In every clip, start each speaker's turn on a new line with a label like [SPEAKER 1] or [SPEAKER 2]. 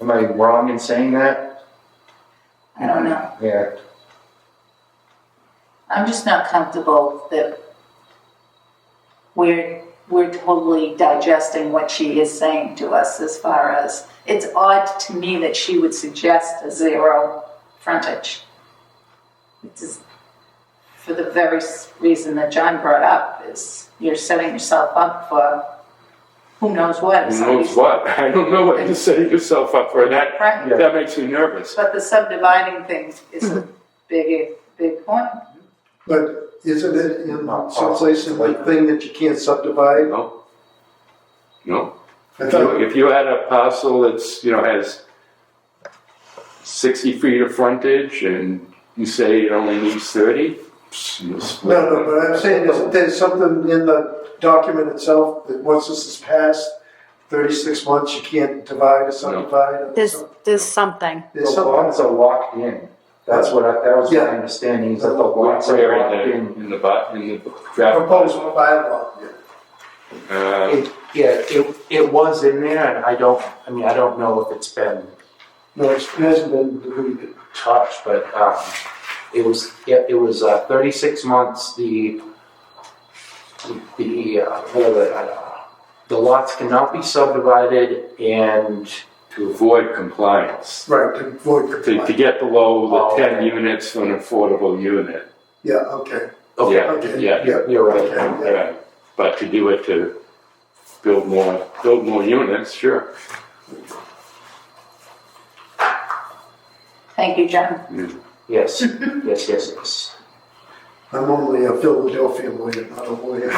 [SPEAKER 1] Am I wrong in saying that?
[SPEAKER 2] I don't know.
[SPEAKER 1] Yeah,
[SPEAKER 2] I'm just not comfortable that we're, we're totally digesting what she is saying to us as far as, it's odd to me that she would suggest a zero frontage. It is, for the very s- reason that John brought up, is you're setting yourself up for who knows what. if
[SPEAKER 3] Who knows
[SPEAKER 2] somebody's-
[SPEAKER 3] what? I don't know what you're setting yourself up for, and that,
[SPEAKER 2] Right.
[SPEAKER 1] Yeah.
[SPEAKER 3] that makes me nervous.
[SPEAKER 2] But the subdividing thing is a
[SPEAKER 3] Mm-hmm.
[SPEAKER 2] big, big point.
[SPEAKER 4] But isn't it in
[SPEAKER 1] Not
[SPEAKER 4] some place in the
[SPEAKER 1] possible.
[SPEAKER 4] thing that you can't subdivide?
[SPEAKER 3] No? No?
[SPEAKER 4] I
[SPEAKER 3] If
[SPEAKER 4] thought,
[SPEAKER 3] you- If you had a parcel that's, you know, has sixty feet of frontage and you say it only needs thirty, you split.
[SPEAKER 4] no, no, but I'm saying, isn't there something in the document itself that once this is passed, thirty-six months, you can't divide or subdivide? or
[SPEAKER 5] There's,
[SPEAKER 4] something?
[SPEAKER 5] there's something.
[SPEAKER 1] the
[SPEAKER 4] There's something,
[SPEAKER 1] lots are locked in. That's what I, that was my
[SPEAKER 4] Yeah.
[SPEAKER 1] understanding, is that the lots are
[SPEAKER 3] Where in
[SPEAKER 1] locked
[SPEAKER 3] the,
[SPEAKER 1] in.
[SPEAKER 3] in the, bu- in the draft.
[SPEAKER 4] proposed bylaw.
[SPEAKER 3] Uh,
[SPEAKER 1] It, yeah, it, it was in there, and I don't, I mean, I don't know if it's been
[SPEAKER 4] No, it hasn't been deleted.
[SPEAKER 1] touched, but, um, it was, yeah, it was, uh, thirty-six months, the, the, uh, what are the, uh, the lots cannot be subdivided and
[SPEAKER 3] to avoid compliance,
[SPEAKER 4] Right, to avoid
[SPEAKER 3] to, to
[SPEAKER 4] compliance.
[SPEAKER 3] get below
[SPEAKER 1] Oh,
[SPEAKER 3] the ten
[SPEAKER 1] okay.
[SPEAKER 3] units for an affordable unit.
[SPEAKER 4] Yeah, okay,
[SPEAKER 1] Okay,
[SPEAKER 4] okay,
[SPEAKER 3] Yeah.
[SPEAKER 4] yeah,
[SPEAKER 1] you're right.
[SPEAKER 4] okay, yeah.
[SPEAKER 3] Right, but to do it to build more, build more units, sure.
[SPEAKER 2] Thank you, John.
[SPEAKER 1] Yes, yes, yes, yes.
[SPEAKER 4] I'm only a Philadelphia lawyer, not a lawyer.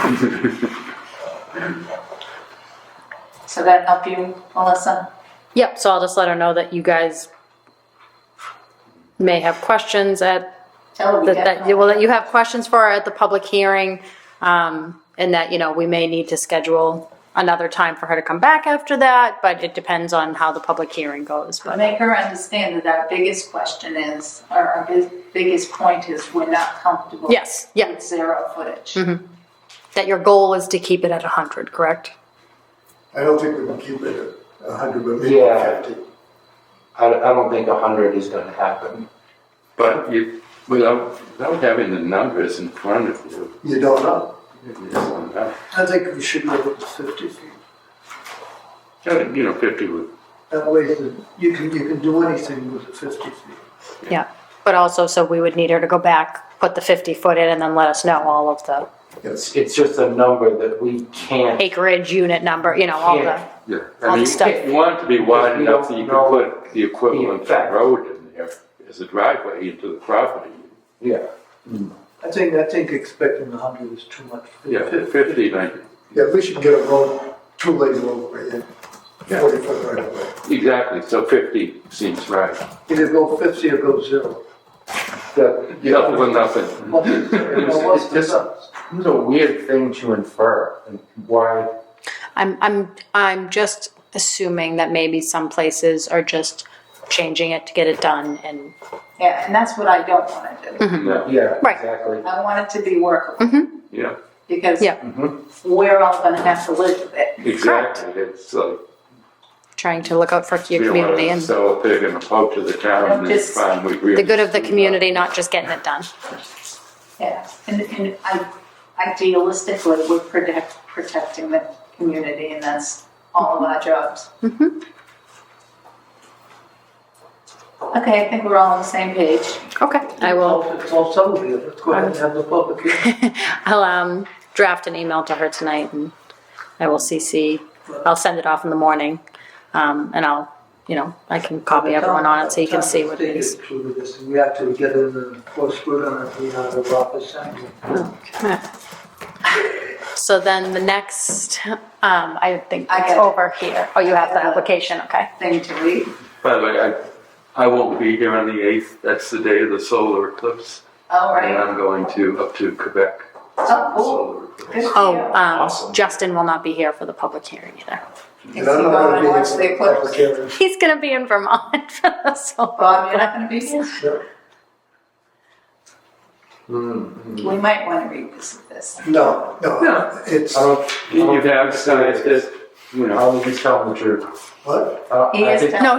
[SPEAKER 2] So that help you, Melissa?
[SPEAKER 5] Yep, so I'll just let her know that you guys may have questions at,
[SPEAKER 2] Tell her we
[SPEAKER 5] that,
[SPEAKER 2] got
[SPEAKER 5] that, well, that you have questions for her at the public hearing. Um, and that, you know, we may need to schedule another time for her to come back after that, but it depends on how the public hearing goes,
[SPEAKER 2] But
[SPEAKER 5] but.
[SPEAKER 2] make her understand that our biggest question is, or our big- biggest point is, we're not comfortable.
[SPEAKER 5] Yes, yeah. Mm-hmm.
[SPEAKER 2] With zero footage.
[SPEAKER 5] That your goal is to keep it at hundred, correct?
[SPEAKER 4] I don't think we can keep it at a hundred, but maybe
[SPEAKER 1] Yeah.
[SPEAKER 4] fifty.
[SPEAKER 1] I, I don't think a hundred is gonna happen.
[SPEAKER 3] But you, without, without having the numbers in front of you,
[SPEAKER 4] You don't know.
[SPEAKER 3] you don't know.
[SPEAKER 4] I think we should go with the fifty feet.
[SPEAKER 3] you know, fifty would,
[SPEAKER 4] That way, the- you can, you can do anything with the fifty feet.
[SPEAKER 5] Yeah, but also, so we would need her to go back, put the fifty foot in and then let us know all of the
[SPEAKER 4] Yes.
[SPEAKER 6] It's just a number that we can't,
[SPEAKER 5] acreage, unit number, you know, all the,
[SPEAKER 6] Yeah.
[SPEAKER 3] yeah.
[SPEAKER 5] All
[SPEAKER 3] I
[SPEAKER 5] the
[SPEAKER 3] mean,
[SPEAKER 5] stuff.
[SPEAKER 3] you want it to be wide
[SPEAKER 6] We
[SPEAKER 3] enough
[SPEAKER 6] don't
[SPEAKER 3] that you
[SPEAKER 6] know
[SPEAKER 3] can put the equivalent
[SPEAKER 6] effect.
[SPEAKER 3] road in there as a driveway into the property.
[SPEAKER 1] Yeah.
[SPEAKER 7] I think, I think expecting a hundred is too much.
[SPEAKER 3] Yeah, fifty, like,
[SPEAKER 4] Yeah, we should get a road, two lane roadway in,
[SPEAKER 3] Yeah.
[SPEAKER 4] forty foot right away.
[SPEAKER 3] exactly, so fifty seems right.
[SPEAKER 7] Either go fifty or go zero.
[SPEAKER 3] Double or nothing.
[SPEAKER 7] Well, you know, what's the
[SPEAKER 1] It's-
[SPEAKER 7] sense?
[SPEAKER 1] It was a weird thing to infer, and why,
[SPEAKER 5] I'm, I'm, I'm just assuming that maybe some places are just changing it to get it done and,
[SPEAKER 2] Yeah, and that's what I don't wanna do.
[SPEAKER 5] Mm-hmm.
[SPEAKER 3] No,
[SPEAKER 1] yeah,
[SPEAKER 5] Right.
[SPEAKER 1] exactly.
[SPEAKER 2] I want it to be workable,
[SPEAKER 3] yeah,
[SPEAKER 2] because
[SPEAKER 5] Mm-hmm. Yeah.
[SPEAKER 2] we're all gonna have to live with it.
[SPEAKER 3] exactly, it's like.
[SPEAKER 5] trying to look out for your
[SPEAKER 3] We don't wanna
[SPEAKER 5] community and
[SPEAKER 3] Sell a pig in a poke to the
[SPEAKER 2] I'm
[SPEAKER 3] town and
[SPEAKER 2] just-
[SPEAKER 3] find we really.
[SPEAKER 5] the good of the community,
[SPEAKER 3] uh,
[SPEAKER 5] not just getting it done.
[SPEAKER 2] Yeah, and, and I, idealistically, we're protect, protecting the community, and that's all of our
[SPEAKER 5] Mm-hmm.
[SPEAKER 2] jobs. Okay, I think we're all on the same page.
[SPEAKER 5] Okay, I will,
[SPEAKER 7] It's all settled here, let's go ahead and have the public hearing.
[SPEAKER 5] I'll, um, draft an email to her tonight and I will CC, I'll send it off in the morning. Um, and I'll, you know, I can copy everyone on it so you can see what it is.
[SPEAKER 7] Town is with this, and we have to get in, and of course, we're gonna be out of office anyway.
[SPEAKER 5] So then the next, um, I think
[SPEAKER 2] I
[SPEAKER 5] it's
[SPEAKER 2] got it.
[SPEAKER 5] over here. Oh, you have the application, okay.
[SPEAKER 2] Thing to read.
[SPEAKER 3] By the way, Uh, I, I won't be here on the eighth, that's the day of the solar eclipse.
[SPEAKER 2] All right.
[SPEAKER 3] And I'm going to, up to Quebec.
[SPEAKER 2] Oh, cool.
[SPEAKER 3] Solar eclipse.
[SPEAKER 2] Good for
[SPEAKER 5] Oh,
[SPEAKER 2] you.
[SPEAKER 5] um, Justin will not be here for the public hearing either.
[SPEAKER 4] And I'm not gonna be
[SPEAKER 2] Watch the
[SPEAKER 4] in
[SPEAKER 2] eclipse.
[SPEAKER 4] public hearing.
[SPEAKER 5] He's gonna be in Vermont for the solar.
[SPEAKER 2] Bob, you're not gonna be here? We might wanna revisit this.
[SPEAKER 4] No, no,
[SPEAKER 3] No.
[SPEAKER 4] it's,
[SPEAKER 1] I don't,
[SPEAKER 3] You have scientists, you know,
[SPEAKER 1] I'll just tell the truth.
[SPEAKER 4] what?
[SPEAKER 1] Uh,
[SPEAKER 2] He
[SPEAKER 1] I
[SPEAKER 2] is
[SPEAKER 1] think-
[SPEAKER 2] telling